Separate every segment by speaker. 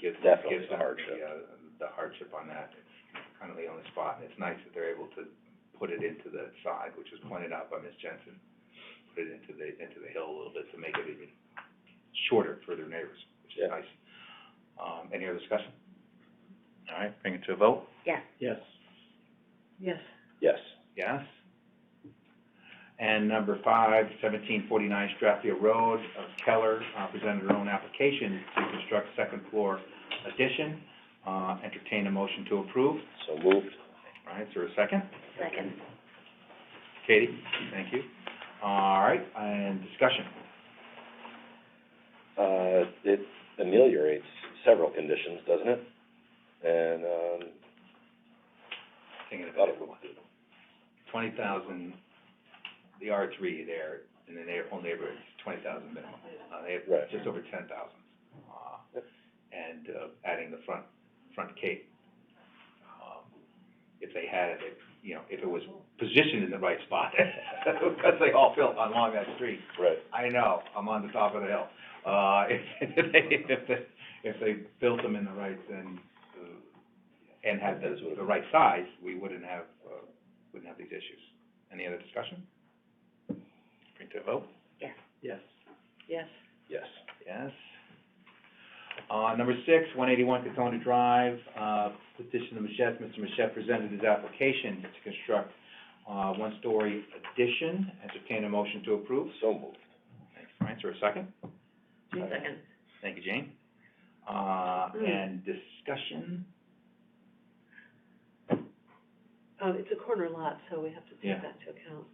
Speaker 1: gives,
Speaker 2: Definitely
Speaker 1: gives
Speaker 2: the
Speaker 1: them
Speaker 2: hardship.
Speaker 1: the, uh, the hardship on that. It's Kind of the only spot, and it's nice that they're able to put it into the side, which was pointed out by Ms. Jensen. Put it into the, into the hill a little bit to make it even shorter for their neighbors, which
Speaker 2: Yeah.
Speaker 1: is nice. Um, any other discussion? All right, bring it to a vote.
Speaker 3: Yes.
Speaker 2: Yes.
Speaker 3: Yes.
Speaker 2: Yes.
Speaker 1: Yes. And number five, seventeen forty-nine Strathfield Road, uh, Keller uh, presented her own application to construct second floor addition. Uh, Entertain a motion to approve.
Speaker 2: So moved.
Speaker 1: All right, is there a second?
Speaker 3: Second.
Speaker 1: Katie, thank you. All right, and discussion.
Speaker 2: Uh, it ameliorates several conditions, doesn't it? And, um,
Speaker 1: Thinking
Speaker 2: thought
Speaker 1: about
Speaker 2: it
Speaker 1: it,
Speaker 2: was,
Speaker 1: twenty thousand, the R three there in the neigh- whole neighborhood is twenty thousand minimum. Uh, they have
Speaker 2: Right.
Speaker 1: just over ten thousand. Uh,
Speaker 2: Yep.
Speaker 1: and, uh, adding the front, front cape. Um, If they had it, if, you know, if it was positioned in the right spot, because they all built along that street.
Speaker 2: right,
Speaker 1: I know, I'm on the top of the hill. Uh, if, if they, if they, if they built them in the right, then, uh, and had the, the right size, we wouldn't have, uh, wouldn't have these issues. Any other discussion? Bring to a vote?
Speaker 3: Yes.
Speaker 1: Yes.
Speaker 3: Yes.
Speaker 2: yes.
Speaker 1: Yes. Uh, number six, one eighty-one Catona Drive, uh, petition of Mashet. Mr. Mashet presented his application to construct, uh, one-story addition. Entertain a motion to approve.
Speaker 2: So moved.
Speaker 1: Thanks, Frank. Is there a second?
Speaker 3: Second.
Speaker 1: Thank you, Jane. Uh,
Speaker 3: Mm.
Speaker 1: and discussion,
Speaker 3: Um, it's a corner lot, so we have to
Speaker 1: Yeah. Hmm.
Speaker 3: take that into account.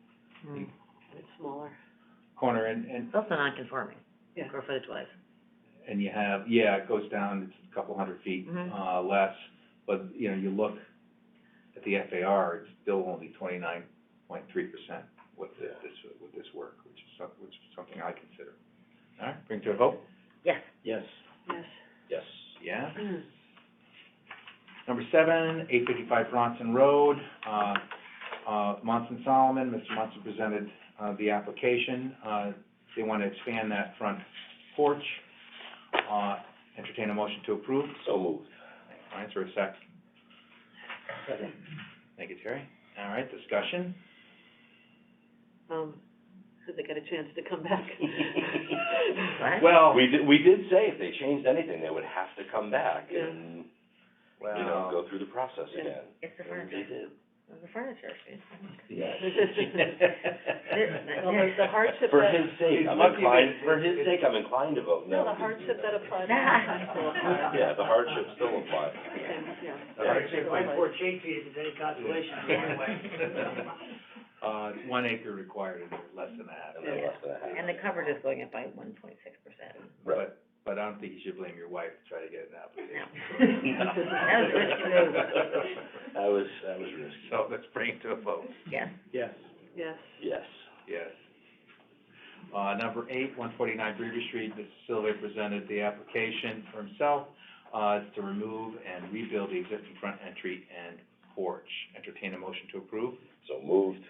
Speaker 3: And It's smaller.
Speaker 1: corner, and, and,
Speaker 3: Also non-conforming,
Speaker 4: Yeah.
Speaker 3: square footage wise.
Speaker 1: and you have, yeah, it goes down, it's a couple hundred feet,
Speaker 3: Mhm.
Speaker 1: uh, less, but, you know, you look at the FAR, it's still only twenty-nine point three percent with the-
Speaker 2: Yeah.
Speaker 1: this, with this work, which is some, which is something I consider. All right, bring to a vote?
Speaker 3: Yes.
Speaker 2: Yes.
Speaker 3: Yes. Hmm.
Speaker 2: Yes.
Speaker 1: Yeah. Number seven, eight fifty-five Bronson Road, uh, uh, Monson Solomon, Mr. Monson presented, uh, the application. Uh, they want to expand that front porch. Uh, entertain a motion to approve.
Speaker 2: So moved.
Speaker 1: All right, is there a sec? Second. Thank you, Terry. All right, discussion?
Speaker 3: Um, so they got a chance to come back.
Speaker 4: Right.
Speaker 1: Well,
Speaker 2: We did, we did say if they changed anything, they would have to come back and, you
Speaker 1: well.
Speaker 2: know, go through the process
Speaker 3: Yeah.
Speaker 2: again.
Speaker 4: It's the
Speaker 2: And they
Speaker 4: furniture,
Speaker 2: did.
Speaker 4: it's the furniture, see?
Speaker 1: Yeah.
Speaker 3: Well, the the hardship
Speaker 2: For
Speaker 3: that-
Speaker 2: his sake,
Speaker 1: He's
Speaker 2: I'm
Speaker 1: lucky
Speaker 2: inclined,
Speaker 1: that-
Speaker 2: for his sake, I'm inclined to vote no.
Speaker 3: No, the hardship that applies. to
Speaker 4: Yeah.
Speaker 3: the high school applies.
Speaker 2: Yeah, the hardship still applies.
Speaker 3: Yeah.
Speaker 1: The hardship
Speaker 3: Like four
Speaker 1: Uh, it's one acre required and less than that.
Speaker 2: And then less than a half.
Speaker 4: And the coverage is going up by one point six percent.
Speaker 2: Right.
Speaker 1: But, but I don't think you should blame your wife to try to get an application.
Speaker 4: No. That was risky
Speaker 2: That was, that was risky.
Speaker 1: So let's bring it to a vote.
Speaker 4: Yes,
Speaker 1: Yes.
Speaker 3: Yes.
Speaker 2: Yes.
Speaker 1: Yes. Uh, number eight, one forty-nine Breeder Street, Mr. Sylvia presented the application for himself, uh, to remove and rebuild the existing front entry and porch. Entertain a motion to approve.
Speaker 2: So moved.
Speaker 1: Is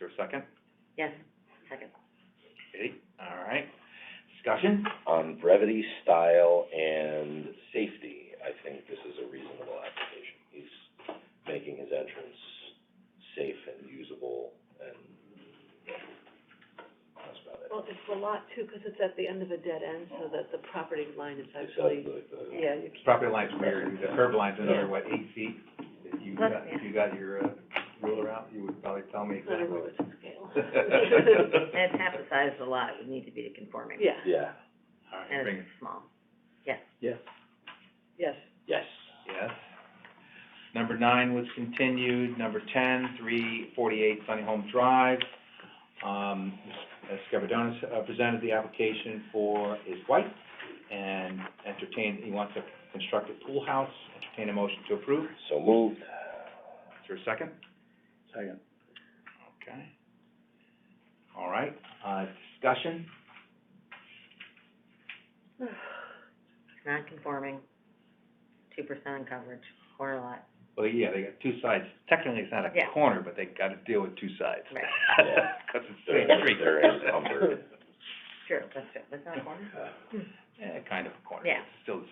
Speaker 1: there a second?
Speaker 4: yes, second,
Speaker 1: Okay, all right. Discussion?
Speaker 2: On brevity, style, and safety, I think this is a reasonable application. He's making his entrance safe and usable and that's about it.
Speaker 3: Well, it's the lot too, because it's at the end of a dead end, so that the property line is
Speaker 2: It's out of
Speaker 3: actually,
Speaker 2: the- the-
Speaker 3: yeah, you can't.
Speaker 1: Property line's weird, the curb line's another,
Speaker 3: Yeah.
Speaker 1: what, eight feet? If you
Speaker 4: Look,
Speaker 1: got, if
Speaker 4: yeah.
Speaker 1: you got your, uh, ruler out, you would probably tell me
Speaker 3: It's not a
Speaker 1: exactly.
Speaker 3: rule, it's a scale.
Speaker 4: and it's half the size of the lot, it would need to be to conforming,
Speaker 3: Yeah,
Speaker 2: Yeah,
Speaker 1: All right,
Speaker 4: and
Speaker 1: bring it,
Speaker 4: it's small.
Speaker 3: yes.
Speaker 2: yes.
Speaker 1: yes. Number nine was continued, number ten, three forty-eight Sunny Home Drive. Um, Ms. Scarpadonis uh, presented the application for his wife and entertained, he wants to construct a pool house, entertain a motion to approve.
Speaker 2: So moved.
Speaker 1: Is there a second?
Speaker 2: Second.
Speaker 1: Okay. All right, uh, discussion?
Speaker 4: It's non-conforming, two percent on coverage, corner lot,
Speaker 1: Well, yeah, they got two sides. Technically, it's not a
Speaker 4: Yeah.
Speaker 1: corner, but they gotta deal with two sides.
Speaker 4: Right.
Speaker 1: Cause it's
Speaker 2: They're-
Speaker 1: the street.
Speaker 2: they're encumbered.
Speaker 4: sure, that's, that's not a corner?
Speaker 1: Eh, kind of a corner.
Speaker 4: Yeah.
Speaker 1: It's Still the